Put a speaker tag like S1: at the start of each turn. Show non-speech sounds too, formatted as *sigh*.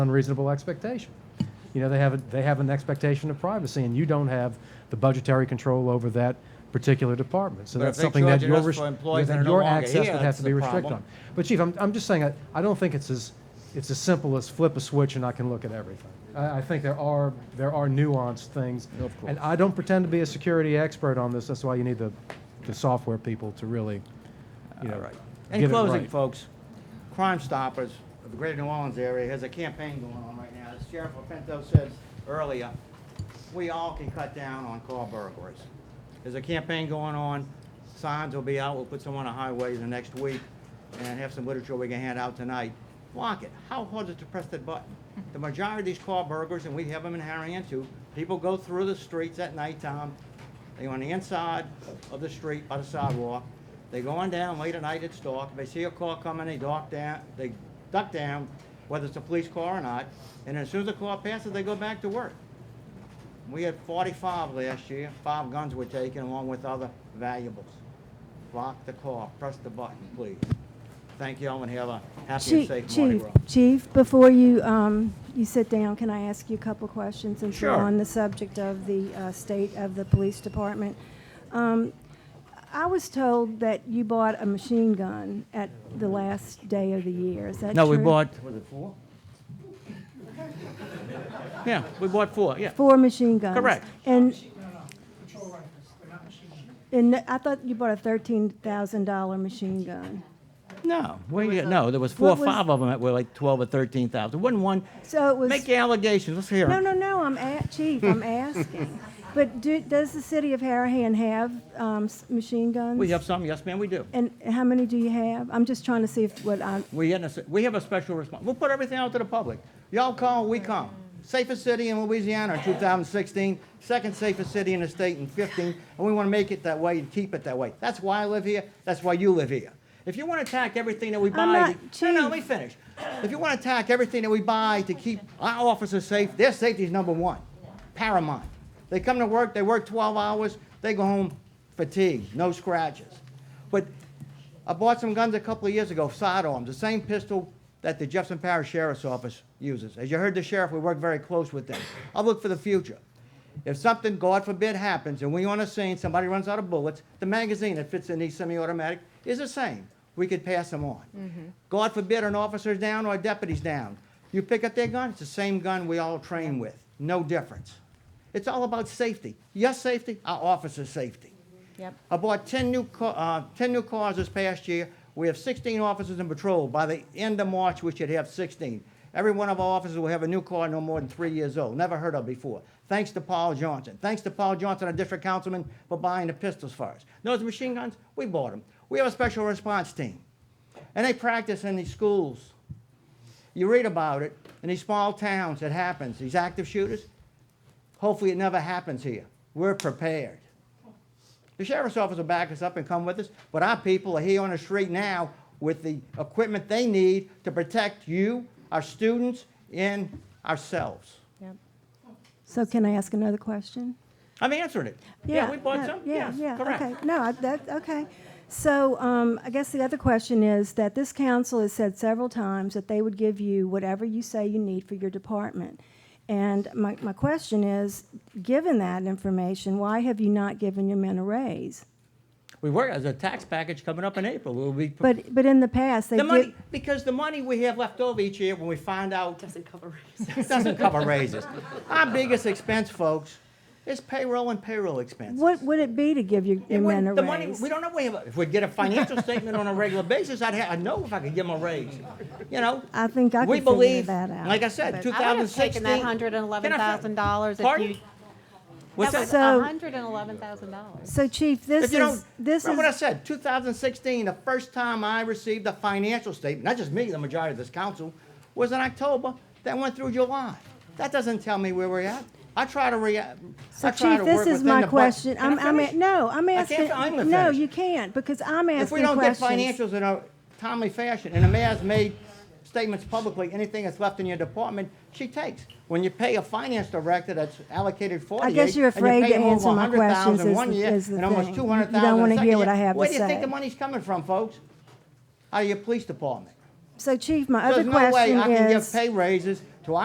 S1: unreasonable expectation. You know, they have, a- they have an expectation of privacy, and you don't have the budgetary control over that particular department. So
S2: But
S1: that's
S2: if they
S1: something that
S2: charge
S1: your,
S2: us
S1: res-
S2: for employees that
S1: that
S2: are no
S1: your
S2: longer
S1: access
S2: here,
S1: would have
S2: that's
S1: to
S2: the
S1: be restricted on.
S2: problem.
S1: But Chief, I'm, I'm just saying, I, I don't think it's as, it's as simple as flip a switch and I can look at everything. I, I think there are, there are nuanced things.
S2: Of course.
S1: And I don't pretend to be a security expert on this, that's why you need the, the software people to really, you know,
S2: In
S1: get it
S2: closing,
S1: right.
S2: folks, Crime Stoppers of the Greater New Orleans area has a campaign going on right now. As Sheriff Lapinto said earlier, we all can cut down on car burglaries. There's a campaign going on. Signs will be out. We'll put some on the highways the next week and have some literature we can hand out tonight. Block it. How hard is it to press that button? The majority of these car burglars, and we have them in Harahan too, people go through the streets at nighttime. They on the inside of the street by the sidewalk. They going down late at night, it's dark. If they see a car coming, they duck down, they duck down, whether it's a police car or not. And as soon as the car passes, they go back to work. We had forty-five last year. Five guns were taken along with other valuables. Lock the car, press the button, please. Thank you all and have a happy and
S3: Chief,
S2: safe Mardi
S3: Chief,
S2: Gras.
S3: Chief, before you, um, you sit down, can I ask you a couple questions? Since we're
S2: Sure.
S3: on the subject of the uh, state of the police department. Um, I was told that you bought a machine gun at the last day of the year. Is that true?
S2: No, we bought, was it four? *laughs* Yeah, we bought four, yeah.
S3: Four machine guns.
S2: Correct.
S3: And,
S4: No, no, uh, patrol rifles, they're not machine guns.
S3: and I thought you bought a $13,000 machine gun.
S2: No, we, no, there was four or
S3: What was-
S2: five of them that were like 12 or 13,000. Wasn't one,
S3: So it was.
S2: make the allegations, let's hear
S3: No,
S2: 'em.
S3: no, no, I'm a,
S2: *laughs*
S3: chief, I'm asking. But do, does the city of Harahan have, um, s- machine guns?
S2: We have some, yes ma'am, we do.
S3: And how many do you have? I'm just trying to see if what I,
S2: We, had a- we have a special response. We'll put everything out to the public. Y'all call, we come. Safest city in Louisiana in 2016, second safest city in the state in 15, and we want to make it that way and keep it that way. That's why I live here, that's why you live here. If you want to attack everything that we buy,
S3: not-
S2: to- no, no, let
S3: Chief.
S2: me finish. If you want to attack everything that we buy to keep our officers safe, their safety is number one, paramount. They come to work, they work 12 hours, they go home fatigued, no scratches. But I bought some guns a couple of years ago, sidearms, the same pistol that the Jefferson Parish Sheriff's Office uses. As you heard the sheriff, we work very close with them. I look for the future. If something, God forbid, happens and we on a scene, somebody runs out of bullets, the magazine that fits in these semi-automatic is the same. We could pass them on. God forbid an officer's down or a deputy's down. You pick up their gun, it's the same gun we all train with. No difference. It's all about safety. Your safety, our officer's safety.
S5: Yep.
S2: I bought 10 new, ca- uh, 10 new cars this past year. We have 16 officers in patrol. By the end of March, we should have 16. Every one of our officers will have a new car no more than three years old. Never heard of before. Thanks to Paul Johnson. Thanks to Paul Johnson, our district councilman, for buying the pistols for us. Those machine guns, we bought them. We have a special response team. And they practice in these schools. You read about it in these small towns, it happens. These active shooters, hopefully it never happens here. We're prepared. The sheriff's office will back us up and come with us, but our people are here on the street now with the equipment they need to protect you, our students, and ourselves.
S5: Yep.
S3: so can I ask another question?
S2: I'm answering it. we bought
S3: no,
S2: some,
S3: Yeah,
S2: yes,
S3: yeah, okay.
S2: correct.
S3: No, I- that, okay. So um, I guess the other question is that this council has said several times that they would give you whatever you say you need for your department. And my, my question is, given that information, why have you not given your men a raise?
S2: We were, as a tax package coming up in April, we'll be.
S3: But, but in the past, they
S2: The money,
S3: did,
S2: because the money we have left over each year when we find out
S5: Doesn't cover
S2: *laughs* It doesn't cover raises. Our biggest expense, folks, is payroll and payroll expenses.
S3: what would it be to give your your
S2: It
S3: men
S2: wouldn't-
S3: a
S2: the money,
S3: raise?
S2: we don't know, we have, a- if we get a
S3: *laughs*
S2: financial statement on a regular basis, I'd, ha- I'd know if I could give them a raise, you know?
S3: I think I
S2: We
S3: could figure
S2: believe,
S3: that out.
S2: like I said, two
S5: I would
S2: thousand
S5: have taken
S2: sixteen.
S5: that hundred and eleven thousand dollars if
S2: Pardon?
S5: you.
S2: What's
S5: That was
S2: that? Um,
S3: So-
S5: hundred and eleven thousand dollars.
S3: So Chief, this
S2: If you
S3: is,
S2: don't,
S3: this
S2: remember what I
S3: is,
S2: said, two thousand sixteen, the first time I received a financial statement, not just me, the majority of this council, was in October, that went through July. That doesn't tell me where we're at. I try to react,
S3: so
S2: I try
S3: Chief,
S2: to work within the.
S3: this is my
S2: bu-
S3: question.
S2: Can
S3: I'm,
S2: I
S3: I'm,
S2: finish?
S3: a- no, I'm
S2: I can't
S3: asking,
S2: fi- I'm gonna
S3: no,
S2: finish.
S3: you can't, because I'm
S2: If we
S3: asking
S2: don't get
S3: questions.
S2: financials in a timely fashion, and the mayor's made statements publicly, anything that's left in your department, she takes. When you pay a finance director that's allocated forty-eight.
S3: guess you're
S2: and you
S3: afraid
S2: pay
S3: to
S2: him over
S3: answer my
S2: 100,000
S3: questions is
S2: one
S3: the-
S2: year
S3: is the
S2: And almost
S3: thing. You
S2: two
S3: don't
S2: hundred thousand.
S3: wanna hear what I have to
S2: Where do you think
S3: say.
S2: the money's coming from, folks? Out of your police department.
S3: So Chief, my
S2: So
S3: other
S2: There's no way I
S3: question
S2: can give
S3: is,
S2: pay raises